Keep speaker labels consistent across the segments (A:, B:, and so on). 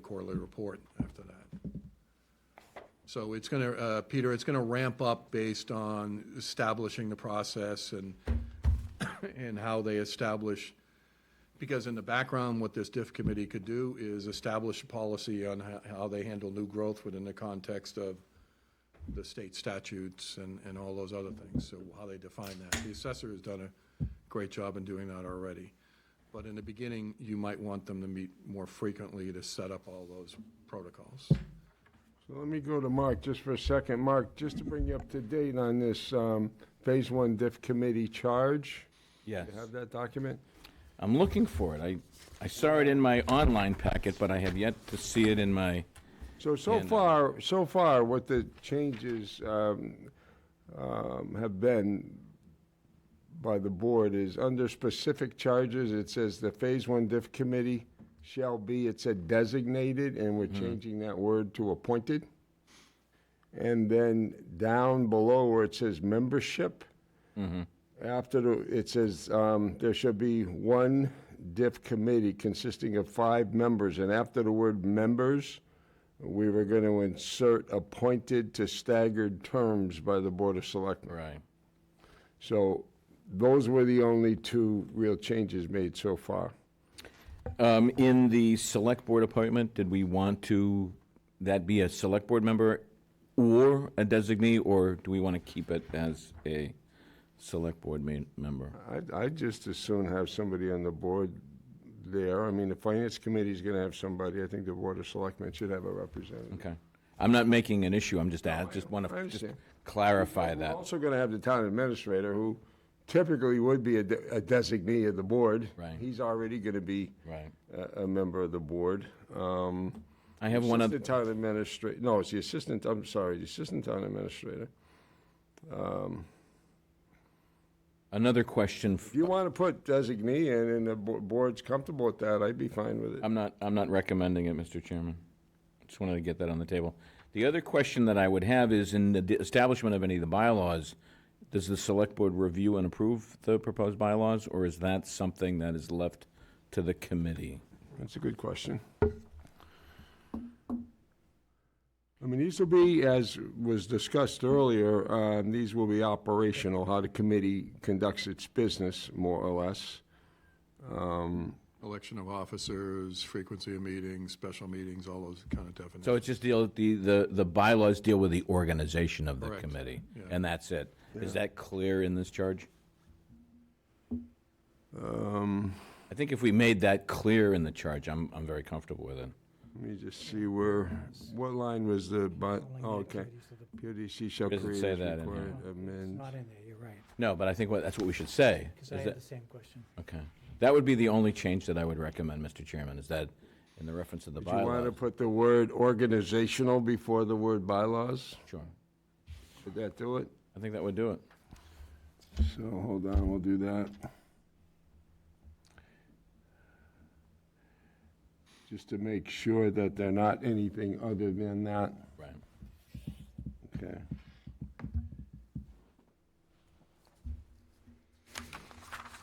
A: the quarterly report after that. So it's going to, Peter, it's going to ramp up based on establishing the process and, and how they establish, because in the background, what this DIF committee could do is establish a policy on ho- how they handle new growth within the context of the state statutes and, and all those other things, so how they define that. The assessor has done a great job in doing that already. But in the beginning, you might want them to meet more frequently to set up all those protocols.
B: So let me go to Mark just for a second. Mark, just to bring you up to date on this um, Phase One Diff Committee charge.
C: Yes.
B: You have that document?
C: I'm looking for it. I, I saw it in my online packet, but I have yet to see it in my,
B: So, so
C: And, uh,
B: far, so far, what the changes um, um, have been by the board is under specific charges, it says the Phase One Diff Committee shall be, it said designated, and we're
C: Mm-hmm.
B: changing that word to appointed. And then down below where it says membership, after the, it says, um, there shall be one diff committee consisting of five members, and after the word members, we were gonna insert appointed to staggered terms by the Board of Selectmen.
C: right.
B: So those were the only two real changes made so far.
C: Um, in the select board appointment, did we want to, that be a select board member or a designee, or do we want to keep it as a select board ma- member?
B: I'd, I'd just as soon have somebody on the board there. I mean, the Finance Committee's gonna have somebody. I think the Board of Selectmen should have a representative.
C: Okay. I'm not making an issue, I'm just, I just want
B: I
C: to just
B: understand.
C: clarify
B: We're
C: that.
B: also gonna have the Town Administrator, who typically would be a de- a designee of the board.
C: Right.
B: He's already gonna be
C: Right.
B: a, a member of the board. Um,
C: I have one other,
B: Assistant Town Administrator, no, it's the Assistant, I'm sorry, the Assistant Town Administrator.
C: another question. f-
B: If you want to put designee in and the bo- board's comfortable with that, I'd be fine with it.
C: I'm not, I'm not recommending it, Mr. Chairman. Just wanted to get that on the table. The other question that I would have is, in the establishment of any of the bylaws, does the select board review and approve the proposed bylaws, or is that something that is left to the committee?
B: That's a good question. I mean, these will be, as was discussed earlier, um, these will be operational, how the committee conducts its business, more or less.
A: Election of officers, frequency of meetings, special meetings, all those kind of definitions.
C: So it's just deal, the, the, the bylaws deal with the organization of the
A: Correct.
C: committee,
A: Yeah.
C: and that's it. Is that clear in this charge?
B: Um,
C: I think if we made that clear in the charge, I'm, I'm very comfortable with it.
B: Let me just see where, what line was the, bu- oh, okay. PODC shall
C: Doesn't
B: create
C: say
B: as
C: that in here.
B: required
D: It's
B: amend.
D: not in there, you're right,
C: No, but I think what, that's what we should say.
D: because
C: is
D: I
C: that-
D: had the same question.
C: Okay. That would be the only change that I would recommend, Mr. Chairman, is that in the reference to the
B: Do you want to
C: bylaws.
B: put the word organizational before the word bylaws?
C: Sure.
B: Would that do it?
C: I think that would do it.
B: So, hold on, we'll do that. Just to make sure that they're not anything other than that.
C: Right.
B: Okay.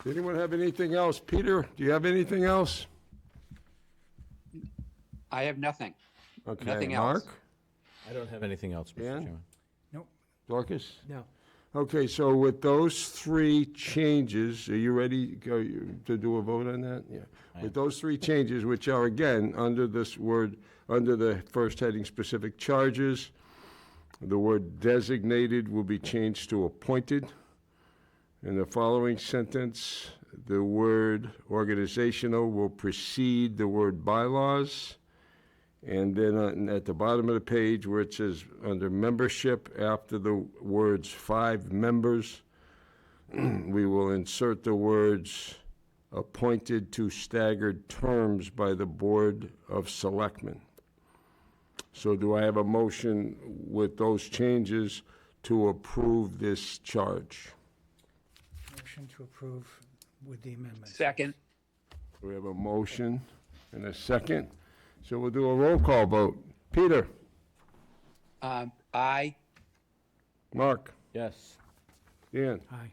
B: Does anyone have anything else? Peter, do you have anything else?
E: I have nothing.
B: Okay,
E: Nothing else.
B: Mark?
C: I don't have anything else, Mr.
B: Dan?
C: Chairman.
D: Nope,
B: Dorcas?
D: no.
B: Okay, so with those three changes, are you ready to go- to do a vote on that? Yeah. With those three changes, which are again, under this word, under the first heading, specific charges, the word designated will be changed to appointed. In the following sentence, the word organizational will precede the word bylaws. And then on- at the bottom of the page where it says, under membership, after the words five members, we will insert the words appointed to staggered terms by the Board of Selectmen. So do I have a motion with those changes to approve this charge?
D: Motion to approve with the amendments.
E: Second,
B: We have a motion and a second. So we'll do a roll call vote. Peter,
E: um, I,
B: Mark,
C: Yes.
B: Dan,
D: Aye.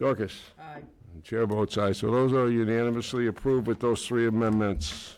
B: Dorcas.
D: Aye.
B: Chair votes aye, so those are unanimously approved with those three amendments.